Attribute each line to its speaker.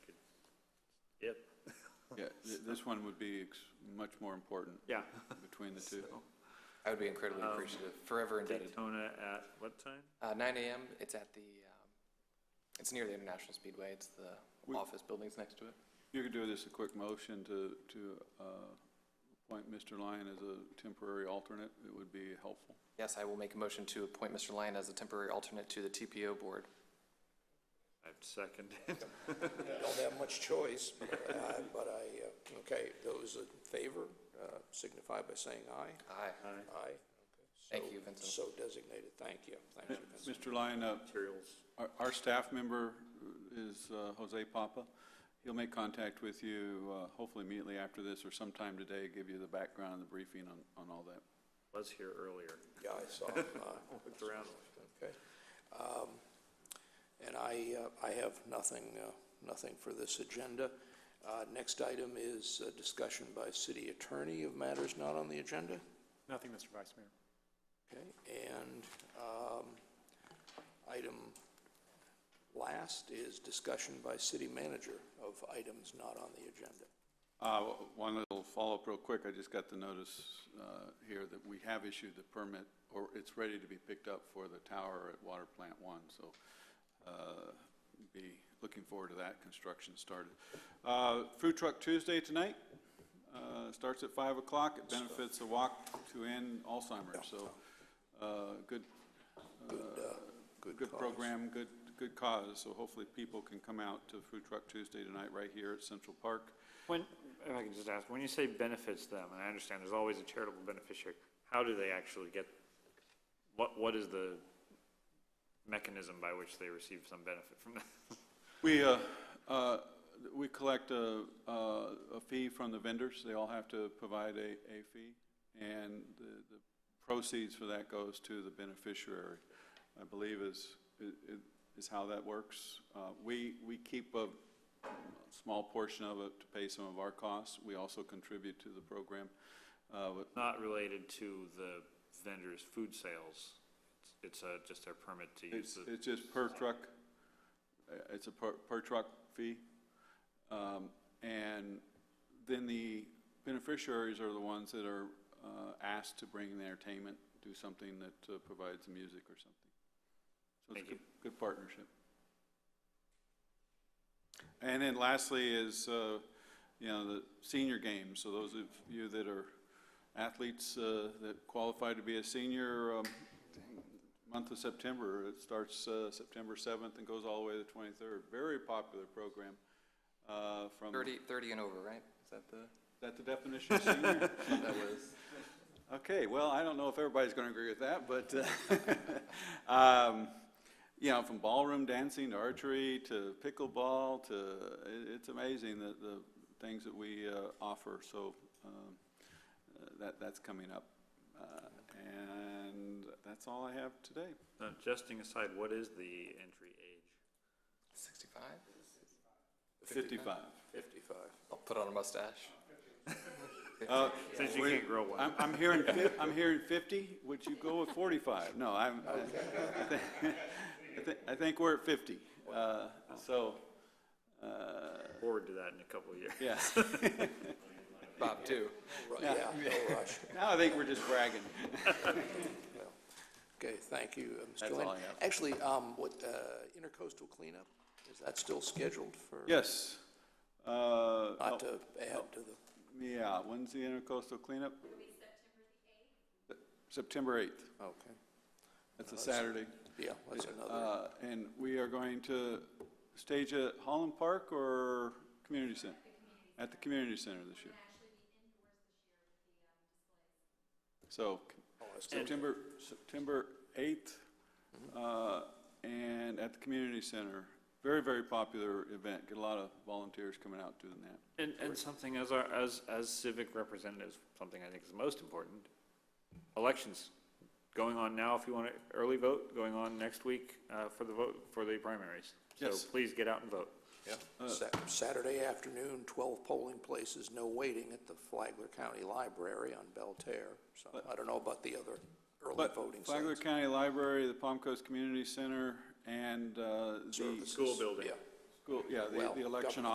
Speaker 1: Yep.
Speaker 2: Yeah, th- this one would be ex- much more important
Speaker 1: Yeah.
Speaker 2: between the two.
Speaker 3: I would be incredibly
Speaker 1: Um,
Speaker 3: appreciative, forever indebted.
Speaker 1: Daytona at what time?
Speaker 3: Uh, nine AM, it's at the, um, it's near the International Speedway, it's the
Speaker 2: We-
Speaker 3: office buildings next to it.
Speaker 2: You could do this a quick motion to, to uh, appoint Mr. Lyon as a temporary alternate. It would be helpful.
Speaker 3: Yes, I will make a motion to appoint Mr. Lyon as a temporary alternate to the TPO board.
Speaker 1: I've seconded.
Speaker 4: don't have much choice, but I- but I, uh, okay, those in favor uh, signify by saying aye.
Speaker 3: Aye.
Speaker 1: Aye.
Speaker 4: Aye.
Speaker 3: Thank
Speaker 4: So-
Speaker 3: you, Vincent.
Speaker 4: So designated, thank you, thank you, Vincent.
Speaker 2: Mr. Lyon, uh,
Speaker 1: Materials.
Speaker 2: our, our staff member is uh, Jose Papa. He'll make contact with you, uh, hopefully immediately after this or sometime today, give you the background and the briefing on, on all that.
Speaker 1: Was here earlier.
Speaker 4: Yeah, I saw, uh,
Speaker 1: Looked around.
Speaker 4: okay. Um, And I, uh, I have nothing, uh, nothing for this agenda. Uh, Next item is uh, discussion by city attorney of matters not on the agenda.
Speaker 5: Nothing, Mr. Vice Mayor.
Speaker 4: Okay, and um, item last is discussion by city manager of items not on the agenda.
Speaker 2: Uh, w- One little follow-up real quick. I just got the notice uh, here that we have issued the permit, or it's ready to be picked up for the tower at Water Plant One, so uh, be looking forward to that construction started. Uh, Food Truck Tuesday tonight, uh, starts at 5 o'clock. It benefits the walk to end Alzheimer's, so uh, good,
Speaker 4: uh, Good
Speaker 2: good
Speaker 4: cause.
Speaker 2: program, good, good cause. So hopefully people can come out to Food Truck Tuesday tonight right here at Central Park.
Speaker 1: When, if I can just ask, when you say benefits them, and I understand there's always a charitable beneficiary, how do they actually get, what, what is the mechanism by which they receive some benefit from that?
Speaker 2: We, uh, uh, we collect a, a a fee from the vendors. They all have to provide a, a fee. And the the proceeds for that goes to the beneficiary, I believe is, i- i- is how that works. Uh, We, we keep a small portion of it to pay some of our costs. We also contribute to the program. Uh, but
Speaker 1: Not related to the vendor's food sales. It's, it's uh, just their permit to use
Speaker 2: It's,
Speaker 1: the.
Speaker 2: it's just per truck, uh, it's a per, per truck fee. Um, And then the beneficiaries are the ones that are uh, asked to bring the entertainment, do something that uh, provides music or something. So it's
Speaker 1: Thank
Speaker 2: a
Speaker 1: you.
Speaker 2: good, good partnership. And then lastly is, uh, you know, the senior games. So those of you that are athletes uh, that qualify to be a senior, um, month of September. It starts uh, September 7th and goes all the way to the 23rd. Very popular program uh, from, is
Speaker 3: Thirty, thirty and over, right? Is that the,
Speaker 2: that the definition of senior?
Speaker 3: that was?
Speaker 2: Okay, well, I don't know if everybody's going to agree with that, but, uh, um, you know, from ballroom dancing to archery to pickleball to, it- it's amazing the, the things that we uh, offer. So um, uh, that, that's coming up. Uh, And that's all I have today.
Speaker 1: Now, jesting aside, what is the entry age?
Speaker 3: 65?
Speaker 2: 55.
Speaker 4: 55.
Speaker 3: I'll put on a mustache.
Speaker 1: Since you can't grow one.
Speaker 2: I'm, I'm hearing, fif- I'm hearing 50, would you go with 45? No, I'm, I thi- I thi- I think we're at 50. Uh, So, uh,
Speaker 1: Forward to that in a couple of years.
Speaker 2: yeah,
Speaker 3: Bob, too.
Speaker 4: Right, Yeah, no rush.
Speaker 2: now I think we're just bragging.
Speaker 4: Well, Okay, thank you, uh, Mr.
Speaker 2: That's all
Speaker 4: Lynn.
Speaker 2: I have.
Speaker 4: Actually, um, what, uh, intercoastal cleanup, is that still scheduled for?
Speaker 2: Yes. Uh,
Speaker 4: Not to add to the,
Speaker 2: Yeah, when's the intercoastal cleanup? September 8th,
Speaker 4: okay,
Speaker 2: that's a Saturday.
Speaker 4: yeah, that's another,
Speaker 2: Uh, And we are going to stage at Holland Park or Community Center? At the Community Center this year. So September, September 8th,
Speaker 4: Mm-hmm.
Speaker 2: uh, and at the Community Center. Very, very popular event. Get a lot of volunteers coming out doing that.
Speaker 1: And, and something as our, as, as civic representatives, something I think is most important, elections going on now if you want to, early vote going on next week uh, for the vote, for the primaries. So
Speaker 2: Yes.
Speaker 1: please get out and vote.
Speaker 4: Sa- Saturday afternoon, 12 polling places, no waiting at the Flagler County Library on Belterre. So I don't know about the other early
Speaker 2: But
Speaker 4: voting
Speaker 2: Flagler
Speaker 4: sites.
Speaker 2: County Library, the Palm Coast Community Center, and uh, the
Speaker 4: Services.
Speaker 1: School building.
Speaker 4: Yeah.
Speaker 2: school, yeah, the-
Speaker 4: Well,
Speaker 2: the election
Speaker 4: government.